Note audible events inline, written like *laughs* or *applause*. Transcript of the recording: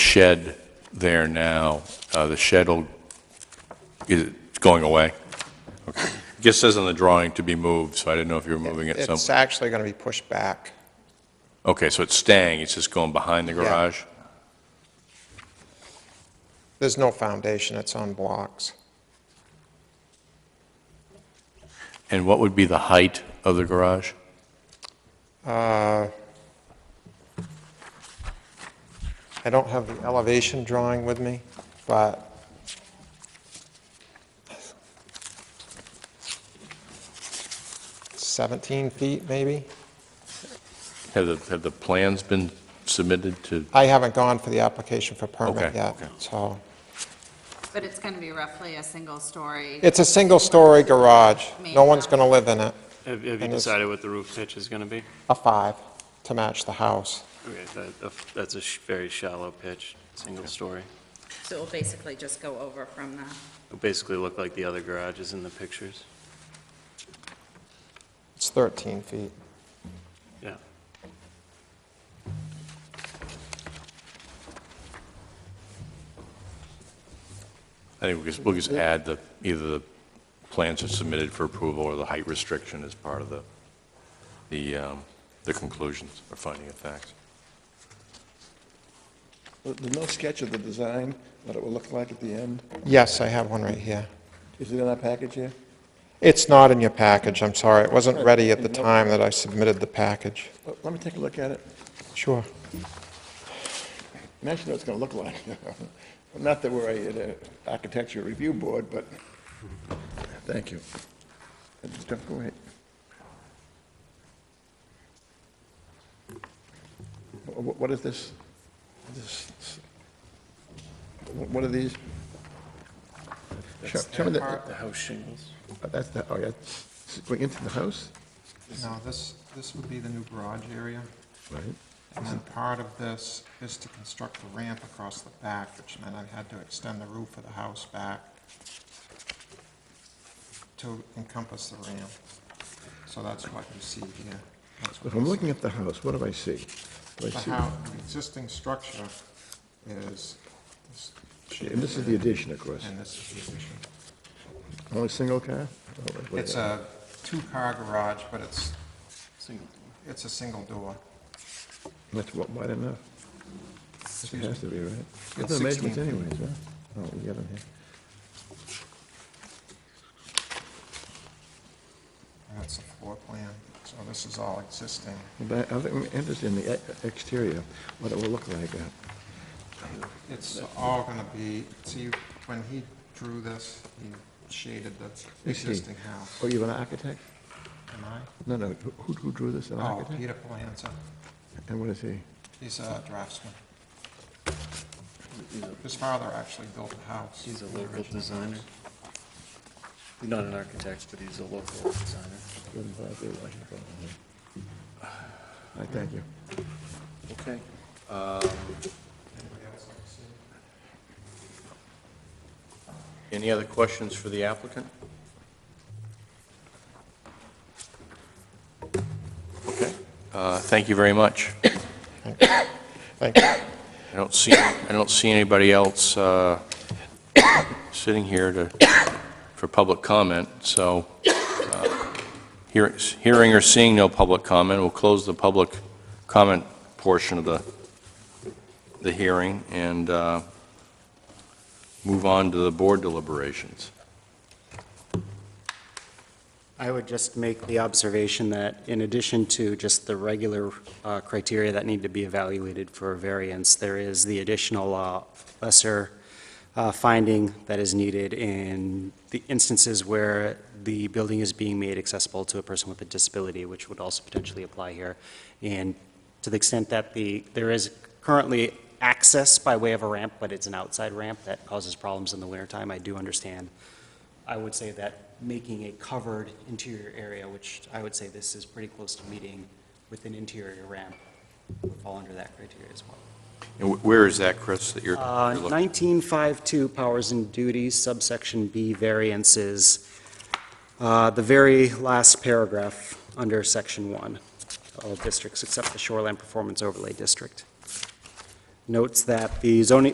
shed there now, uh, the shed will, is it going away? Okay. It just says on the drawing to be moved, so I didn't know if you were moving it It's some... actually going to be pushed back. Okay, so it's staying, it's just going behind the garage? There's no foundation, it's on blocks. And what would be the height of the garage? Uh, I don't have the elevation drawing with me, but seventeen feet, maybe? Have the, have the plans been submitted to, I haven't gone for the application for permit Okay, yet, okay. so. But it's going to be roughly a single-story. It's a single-story garage. No one's going to live in it. Have have you And it's- decided what the roof pitch is going to be? A five to match the house. Okay, that- That's a sh- very shallow pitch, single story. So it'll basically just go over from the, It'll basically look like the other garages in the pictures. It's 13 feet. Yeah. I think we just, we'll just add the, either the plans are submitted for approval or the height restriction as part of the, the, um, the conclusions or finding of facts. There's no sketch of the design, what it will look like at the end. Yes, I have one right here. Is it in our package here? It's not in your package, I'm sorry. It wasn't ready at the Nope. time that I submitted the package. Let- Let me take a look at it. Sure. Imagine what it's going to look like. *laughs* Not that we're a- an architecture review board, but, thank you. Don't go ahead. Wh- wh- What is this? This- wh- What are these? Show show me the, The house shingles? that's the, oh, yeah, it's going into the house? No, this, this would be the new garage area. Right. And then part of this is to construct a ramp across the back, which meant I had to extend the roof of the house back to encompass the ramp. So that's what you see here. That's what If I'm this- looking at the house, what do I see? Do I The see- house, the existing structure is this shape And this is the addition, of course. and this is the addition. Only single car? Oh, It's uh, a two-car garage, but it's, uh, Single. it's a single door. That's wa- wide enough. It Excuse has to me. be, right? It's There's no measurements 16. anyways, huh? Oh, we got them here. And it's a floor plan, so this is all existing. But I think I'm interested in the e- exterior, what it will look like. uh, It's all gonna be, see, when he drew this, he shaded the Is he- existing house. Oh, you're an architect? Am I? No, no, who- who who drew this, an Oh, architect? Peter Palanza, And what is he? he's a draftsman. His father actually built the house. He's a local designer. Not an architect, but he's a local designer. I thank you. Okay. Anybody else like to see? Any other questions for the applicant? Okay, uh, thank you very much. Thank you. I don't see, I don't see anybody else uh, sitting here to, for public comment, so uh, hear- hearing or seeing no public comment, we'll close the public comment portion of the, the hearing and uh, move on to the board deliberations. I would just make the observation that in addition to just the regular uh, criteria that need to be evaluated for a variance, there is the additional uh, lesser uh, finding that is needed in the instances where the building is being made accessible to a person with a disability, which would also potentially apply here. And to the extent that the, there is currently access by way of a ramp, but it's an outside ramp that causes problems in the wintertime, I do understand I would say that making a covered interior area, which I would say this is pretty close to meeting with an interior ramp, would fall under that criteria as well. And wh- where is that, Chris, that you're Uh, you're looking? 1952, powers and duties, subsection B, variances, Uh, the very last paragraph under section one, all districts except the shoreline performance overlay district. notes that the zoning,